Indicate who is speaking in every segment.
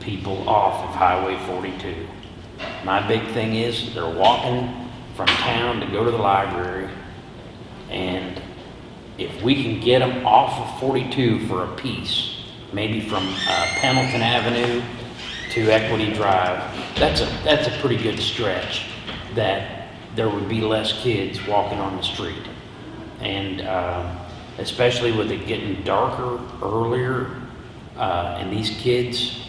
Speaker 1: people off of Highway 42. My big thing is, they're walking from town to go to the library, and if we can get them off of 42 for a piece, maybe from uh, Pendleton Avenue to Equity Drive, that's a, that's a pretty good stretch, that there would be less kids walking on the street. And uh, especially with it getting darker earlier, uh, and these kids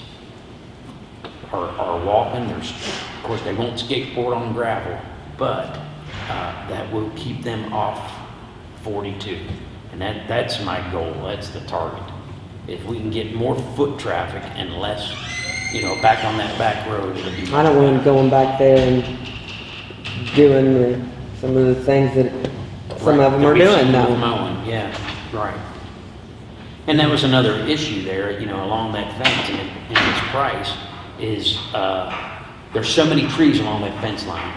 Speaker 1: are, are walking, there's, of course, they won't skateboard on gravel, but uh, that will keep them off 42. And that, that's my goal, that's the target. If we can get more foot traffic and less, you know, back on that back road, it'll be.
Speaker 2: I don't want him going back there and doing the, some of the things that some of them are
Speaker 1: Right, that we've
Speaker 2: doing
Speaker 1: seen with
Speaker 2: now.
Speaker 1: Mowing, yeah, right. And that was another issue there, you know, along that fence and, and its price is, uh, there's so many trees along that fence line.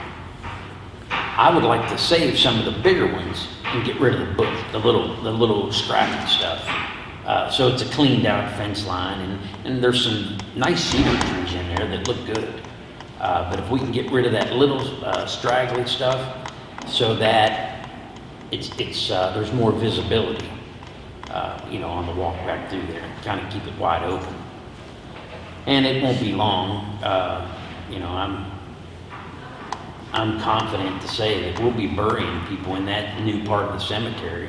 Speaker 1: I would like to save some of the bigger ones and get rid of the book, the little, the little scrappy stuff. Uh, so it's a cleaned out fence line and, and there's some nice cedar trees in there that look good. Uh, but if we can get rid of that little, uh, straggly stuff so that it's, it's, uh, there's more visibility, uh, you know, on the walk back through there, kind of keep it wide open. And it won't be long, uh, you know, I'm, I'm confident to say that we'll be burying people in that new part of the cemetery,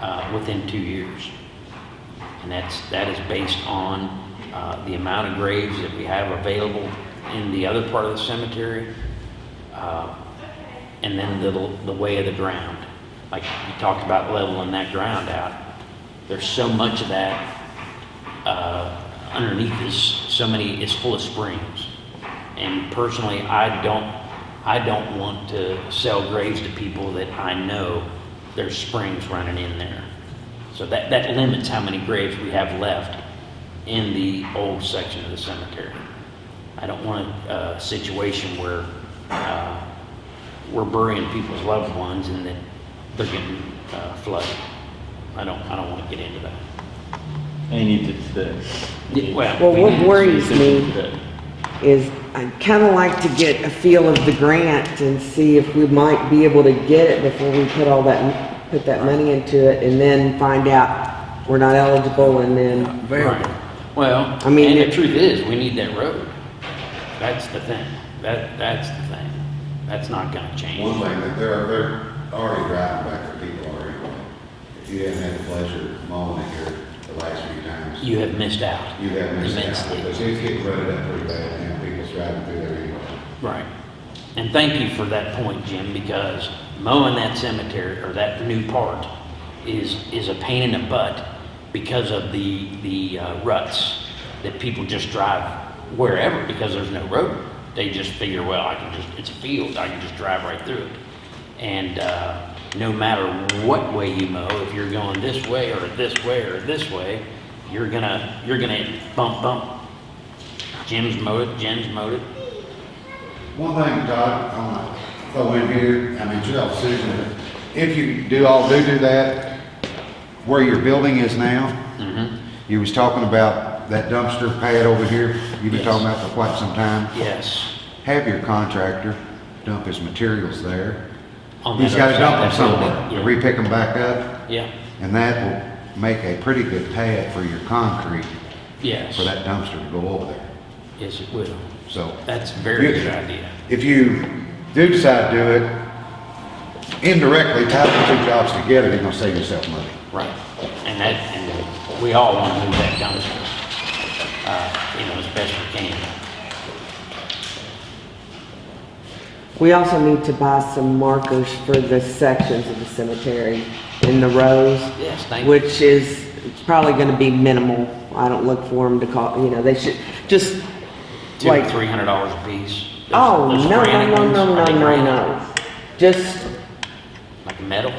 Speaker 1: uh, within two years. And that's, that is based on, uh, the amount of graves that we have available in the other part of the cemetery, uh, and then the, the way of the ground. Like you talked about leveling that ground out. There's so much of that, uh, underneath is, so many, is full of springs. And personally, I don't, I don't want to sell graves to people that I know there's springs running in there. So that, that limits how many graves we have left in the old section of the cemetery. I don't want a, a situation where, uh, we're burying people's loved ones and that they're getting uh, flooded. I don't, I don't want to get into that.
Speaker 3: I need to, the.
Speaker 1: Yeah, well,
Speaker 2: Well,
Speaker 1: we
Speaker 2: what
Speaker 1: need to
Speaker 2: worries
Speaker 1: see
Speaker 2: me-
Speaker 1: the-
Speaker 2: Is I'd kinda like to get a feel of the grant and see if we might be able to get it before we put all that, put that money into it and then find out we're not eligible and then,
Speaker 1: Right. Well,
Speaker 2: I mean,
Speaker 1: and the
Speaker 2: it-
Speaker 1: truth is, we need that road. That's the thing. That, that's the thing. That's not gonna
Speaker 4: One
Speaker 1: change.
Speaker 4: thing, that they're, they're already driving back, there. people already going. If you haven't had the pleasure of mowing it here the last few times,
Speaker 1: You have missed out.
Speaker 4: you have missed out.
Speaker 1: Immensely.
Speaker 4: Because it's getting rutted up pretty bad, and people's driving through there anyway.
Speaker 1: Right. And thank you for that point, Jim, because mowing that cemetery or that new part is, is a pain in the butt because of the, the uh, ruts that people just drive wherever because there's no road. They just figure, well, I can just, it's a field, I can just drive right through it. And, uh, no matter what way you mow, if you're going this way or this way or this way, you're gonna, you're gonna bump, bump. Jim's mowed it, Jim's mowed it.
Speaker 4: One thing, Todd, I want to throw in here, I mean, it's your decision, but if you do all do do that, where your building is
Speaker 1: Mm-hmm.
Speaker 4: now, you was talking about that dumpster pad over here, you've been
Speaker 1: Yes.
Speaker 4: talking about for quite some time.
Speaker 1: Yes.
Speaker 4: Have your contractor dump his materials there.
Speaker 1: on
Speaker 4: He's
Speaker 1: that
Speaker 4: got to
Speaker 1: other
Speaker 4: dump them
Speaker 1: side of that
Speaker 4: somewhere,
Speaker 1: building.
Speaker 4: re-pick them back up,
Speaker 1: Yeah,
Speaker 4: and that will make a pretty good pad for your concrete,
Speaker 1: Yeah. yes.
Speaker 4: for that dumpster to go over there,
Speaker 1: Yes, it will.
Speaker 4: so.
Speaker 1: That's a very
Speaker 4: Yeah.
Speaker 1: good idea.
Speaker 4: if you do decide to do it, indirectly tie the two jobs together, you're gonna save yourself money.
Speaker 1: Right. And that, and we all want to move that dumpster, uh, you know, as best we can.
Speaker 2: we also need to buy some markers for the sections of the cemetery in the rows.
Speaker 1: Yes, thank you.
Speaker 2: which is it's probably going to be minimal. I don't look for them to call, you know, they should just
Speaker 1: Two,
Speaker 2: like,
Speaker 1: three hundred dollars a piece. Those-
Speaker 2: oh,
Speaker 1: those
Speaker 2: no, no,
Speaker 1: granite
Speaker 2: no,
Speaker 1: ones,
Speaker 2: no,
Speaker 1: are
Speaker 2: no,
Speaker 1: they
Speaker 2: no,
Speaker 1: granite?
Speaker 2: no. Just,
Speaker 1: Like metal?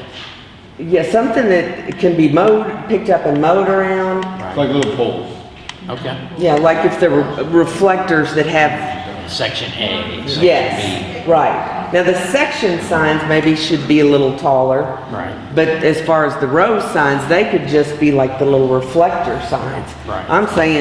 Speaker 2: yeah, something that can be mowed, picked up and mowed around.
Speaker 3: It's like little poles.
Speaker 1: Okay.
Speaker 2: Yeah, like if the re- reflectors that have,
Speaker 1: Section A, section B.
Speaker 2: yes, right. Now, the section signs maybe should be a little taller.
Speaker 1: Right.
Speaker 2: But as far as the row signs, they could just be like the little reflector signs.
Speaker 1: Right.
Speaker 2: I'm saying